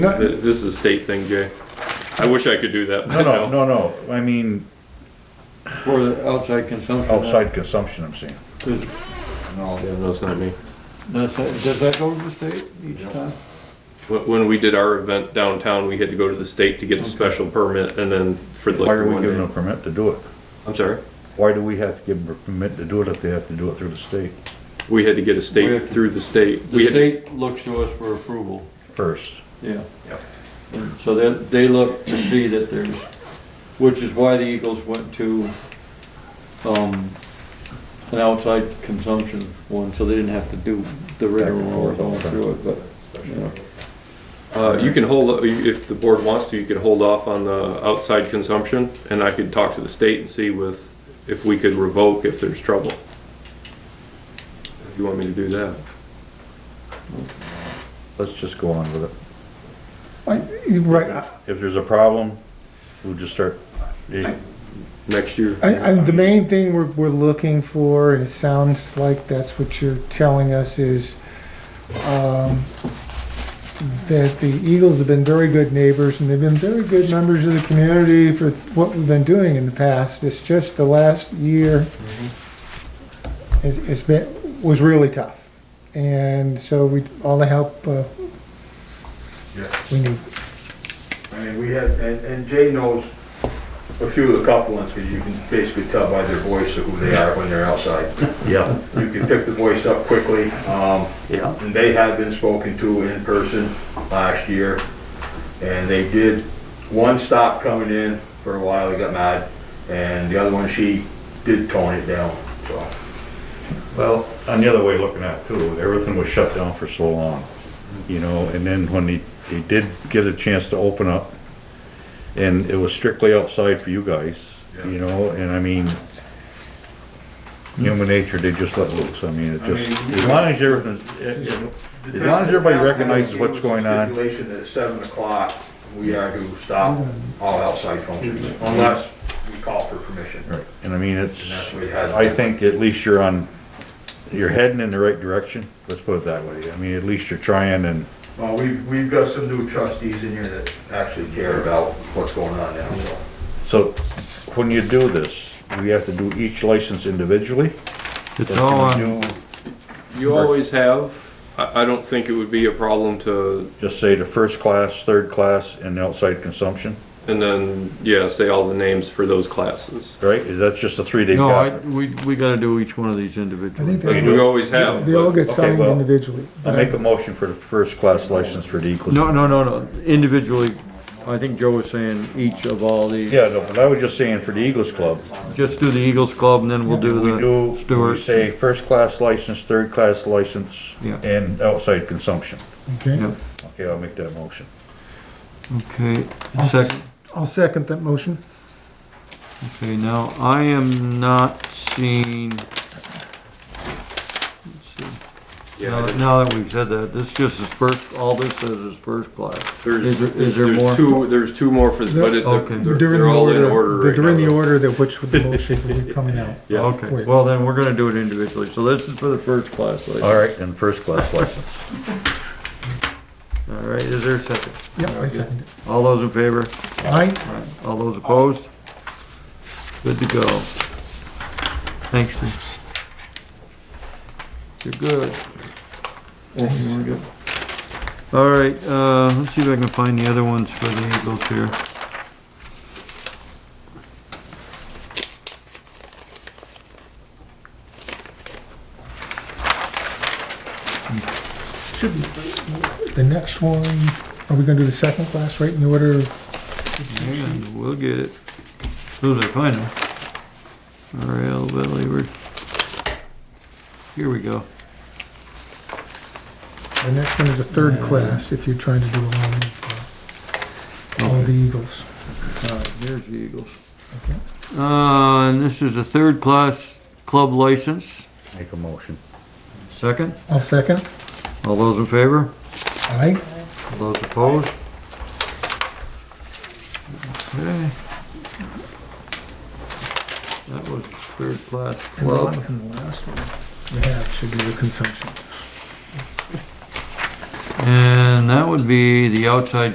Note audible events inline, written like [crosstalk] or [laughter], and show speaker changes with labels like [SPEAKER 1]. [SPEAKER 1] No.
[SPEAKER 2] Th- This is a state thing, Jay. I wish I could do that,
[SPEAKER 3] No,
[SPEAKER 2] but
[SPEAKER 3] no,
[SPEAKER 2] no.
[SPEAKER 3] no, no, I mean,
[SPEAKER 4] For the outside consumption.
[SPEAKER 3] outside consumption, I'm saying.
[SPEAKER 4] Does
[SPEAKER 2] Yeah, No, it's not me.
[SPEAKER 4] does that, does that go to the state each time?
[SPEAKER 2] When, when we did our event downtown, we had to go to the state to get a special permit and then for
[SPEAKER 3] Why
[SPEAKER 2] like
[SPEAKER 3] are we
[SPEAKER 2] one
[SPEAKER 3] giving them
[SPEAKER 2] day.
[SPEAKER 3] a permit to do it?
[SPEAKER 2] I'm sorry.
[SPEAKER 3] Why do we have to give them a permit to do it if they have to do it through the state
[SPEAKER 2] We had to get a
[SPEAKER 4] We
[SPEAKER 2] state
[SPEAKER 4] have to-
[SPEAKER 2] through the state. We
[SPEAKER 4] The
[SPEAKER 2] had-
[SPEAKER 4] state looks to us for approval,
[SPEAKER 3] first?
[SPEAKER 4] yeah.
[SPEAKER 2] Yeah.
[SPEAKER 4] And So they, they look to see that there's, which is why the Eagles went to, um, an outside consumption one, so they didn't have to do the
[SPEAKER 3] Back
[SPEAKER 4] regular
[SPEAKER 3] and
[SPEAKER 4] road
[SPEAKER 3] forth all
[SPEAKER 4] going
[SPEAKER 3] the
[SPEAKER 4] through it, but, you know.
[SPEAKER 3] time.
[SPEAKER 2] Uh, you can hold, if the board wants to, you could hold off on the outside consumption and I could talk to the state and see with, if we could revoke if there's trouble. If you want me to do that.
[SPEAKER 3] Let's just go on with it.
[SPEAKER 1] I- you're Right, I-
[SPEAKER 3] If there's a problem, we'll just start, eh,
[SPEAKER 2] Next year,
[SPEAKER 1] I, I, the main thing we're, we're looking for, and it sounds like that's what you're telling us, is, um, that the Eagles have been very good neighbors, and they've been very good members of the community for what we've been doing in the past. It's just the last year has, has been, was really tough. And so we, all the help, uh,
[SPEAKER 5] Yeah,
[SPEAKER 1] we need.
[SPEAKER 5] I mean, we had, and, and Jay knows a few of the couple ones, because you can basically tell by their voice of who they are when they're outside.
[SPEAKER 3] yeah,
[SPEAKER 5] You can pick the voice up quickly, um,
[SPEAKER 4] Yeah.
[SPEAKER 5] and they have been spoken to in person last year, and they did, one stopped coming in for a while, they got mad, and the other one, she did tone it down, so.
[SPEAKER 3] Well, on the other way looking at it too, everything was shut down for so long, you know, and then when they, they did get a chance to open up, and it was strictly outside for you guys, you know, and I mean, human nature, they just let loose, I mean, it
[SPEAKER 5] I
[SPEAKER 3] just,
[SPEAKER 5] mean,
[SPEAKER 3] as long as everything, it- it- As long as everybody recognizes what's going on.
[SPEAKER 5] Stipulation that at seven o'clock, we are to stop all outside functions unless we call for permission.
[SPEAKER 3] right, and I mean,
[SPEAKER 5] And that's
[SPEAKER 3] it's,
[SPEAKER 5] what we had.
[SPEAKER 3] I think at least you're on, you're heading in the right direction, let's put it that way, I mean, at least you're trying and,
[SPEAKER 5] Well, Uh, we've, we've got some new trustees in here that actually care about what's going on now, so.
[SPEAKER 3] So when you do this, we have to do each license individually? It's all on.
[SPEAKER 2] you always have, I, I don't think it would be a problem to,
[SPEAKER 3] Just say the first class, third class, and outside consumption,
[SPEAKER 2] and then, yeah, say all the names for those classes.
[SPEAKER 3] right? That's just a three-day
[SPEAKER 4] No, I,
[SPEAKER 3] cap.
[SPEAKER 4] we, we gotta do each one of these individually.
[SPEAKER 1] think
[SPEAKER 2] As we always have.
[SPEAKER 1] They all
[SPEAKER 2] but-
[SPEAKER 1] get
[SPEAKER 3] Okay,
[SPEAKER 1] signed
[SPEAKER 3] well,
[SPEAKER 1] individually.
[SPEAKER 3] I
[SPEAKER 1] but
[SPEAKER 3] make a motion for the first class license for the Eagles.
[SPEAKER 4] No, no, no, no, individually, I think Joe was saying each of all these.
[SPEAKER 3] Yeah, no, but I was just saying for the Eagles Club,
[SPEAKER 4] Just do the Eagles Club and then we'll
[SPEAKER 3] we
[SPEAKER 4] do
[SPEAKER 3] do,
[SPEAKER 4] the
[SPEAKER 3] we
[SPEAKER 4] Stewart's.
[SPEAKER 3] say first class license, third class license,
[SPEAKER 4] Yeah.
[SPEAKER 3] and outside consumption.
[SPEAKER 1] Okay,
[SPEAKER 4] Yeah,
[SPEAKER 3] Okay, I'll make that motion.
[SPEAKER 4] okay, second,
[SPEAKER 1] I'll second that motion.
[SPEAKER 4] okay, now, I am not seeing. let's see.
[SPEAKER 2] Yeah, I
[SPEAKER 4] Now
[SPEAKER 2] didn't-
[SPEAKER 4] now that we've said that, this just is first, all this says is first class.
[SPEAKER 2] There's,
[SPEAKER 4] Is there, is
[SPEAKER 2] there's
[SPEAKER 4] there more?
[SPEAKER 2] there's two, there's two more for, but it-
[SPEAKER 4] Okay.
[SPEAKER 2] they're,
[SPEAKER 1] They're
[SPEAKER 2] they're
[SPEAKER 1] the
[SPEAKER 2] all in order right
[SPEAKER 1] They're in
[SPEAKER 2] now,
[SPEAKER 1] the
[SPEAKER 2] though.
[SPEAKER 1] order that which the
[SPEAKER 2] [laughs]
[SPEAKER 1] motion would be coming out.
[SPEAKER 2] Yeah.
[SPEAKER 4] Okay, well then, we're gonna do it individually, so this is for the first class lady.
[SPEAKER 3] All right, and first class license.
[SPEAKER 4] All right, is there a second?
[SPEAKER 1] Yep, I second it.
[SPEAKER 4] All those in favor?
[SPEAKER 1] Aye?
[SPEAKER 4] All those opposed? Good to go. Thanks, Lee. You're good. You were good. All right, uh, let's see if I can find the other ones for the Eagles here.
[SPEAKER 1] The next one, are we gonna do the second class right in the order?
[SPEAKER 4] Hang on, We'll get it. As Soon as I find them. RL Valley, we're, here we go.
[SPEAKER 1] The next one is the third class, if you're trying to do all of, uh, all the Eagles.
[SPEAKER 4] All right, there's the Eagles.
[SPEAKER 1] Okay.
[SPEAKER 4] Uh, and this is a third-class club license.
[SPEAKER 3] Make a motion.
[SPEAKER 4] Second,
[SPEAKER 1] I'll second.
[SPEAKER 4] all those in favor?
[SPEAKER 1] Aye?
[SPEAKER 4] All those opposed? Okay. That was third-class
[SPEAKER 1] And the
[SPEAKER 4] club.
[SPEAKER 1] one from the last one we have should be the consumption.
[SPEAKER 4] And that would be the outside